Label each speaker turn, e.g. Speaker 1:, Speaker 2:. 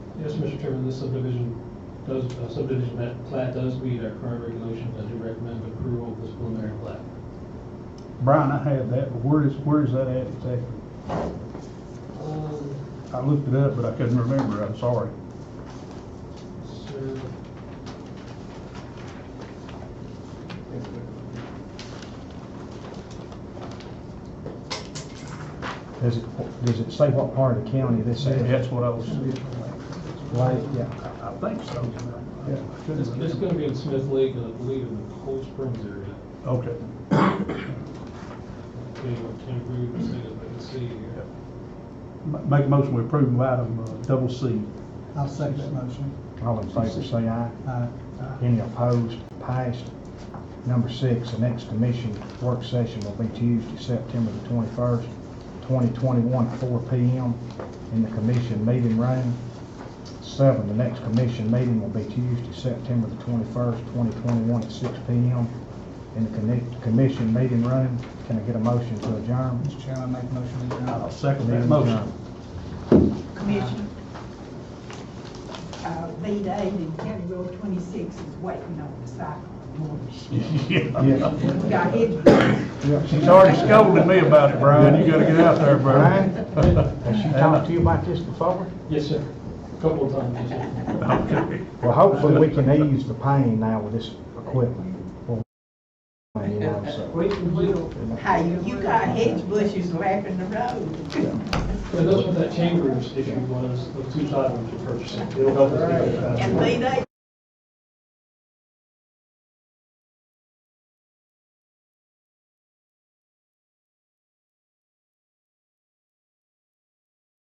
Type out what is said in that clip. Speaker 1: Yes, Mr. Chairman, this subdivision, does, uh, subdivision ma- plat does meet our current regulations. I do recommend approval of this preliminary plat.
Speaker 2: Brian, I had that, but where is, where is that at exactly?
Speaker 1: Um,
Speaker 2: I looked it up, but I couldn't remember, I'm sorry.
Speaker 1: Sir,
Speaker 3: Does it, does it say what part of the county this is?
Speaker 2: That's what I was,
Speaker 3: Right, yeah.
Speaker 2: I I think so.
Speaker 3: Yeah.
Speaker 2: I couldn't
Speaker 1: This, this is
Speaker 2: remember.
Speaker 1: gonna be in Smith Lake, and I believe in the Cold Springs area.
Speaker 2: Okay.
Speaker 1: Okay, I can agree with the state, I can see here.
Speaker 2: Ma- Make a motion, we approve of item uh, double C.
Speaker 4: I'll second that motion.
Speaker 3: All in favor, say aye.
Speaker 4: Aye.
Speaker 3: Any opposed? Passed. Number six, the next commission work session will be Tuesday, September the twenty-first, twenty twenty-one, at four P M. in the commission meeting room. Seven, the next commission meeting will be Tuesday, September the twenty-first, twenty twenty-one, at six P M. in the connect, commission meeting room. Can I get a motion to adjourn?
Speaker 4: Mr. Chairman, I make a motion to
Speaker 2: I'll
Speaker 4: adjourn.
Speaker 2: second that
Speaker 3: Meeting
Speaker 2: motion.
Speaker 3: adjourned.
Speaker 5: Commission. Uh, lead aid in County Road twenty-six is waiting on the cyclone warning.
Speaker 2: Yeah.
Speaker 5: We got it.
Speaker 3: Yeah.
Speaker 2: She's already scolded me about it, Brian, you gotta get out there, Brian.
Speaker 3: Brian, has she talked to you about this before?
Speaker 1: Yes, sir. A Couple of times, yes, sir.
Speaker 2: Okay.
Speaker 3: Well, hopefully we can ease the pain now with this equipment. Well, You know, so.
Speaker 1: We can deal.
Speaker 5: Hey, you got hedge bushes lapping the road.
Speaker 1: And that's what that chambers issue was, those two titles you're purchasing. It'll help us get it faster.
Speaker 5: And lead aid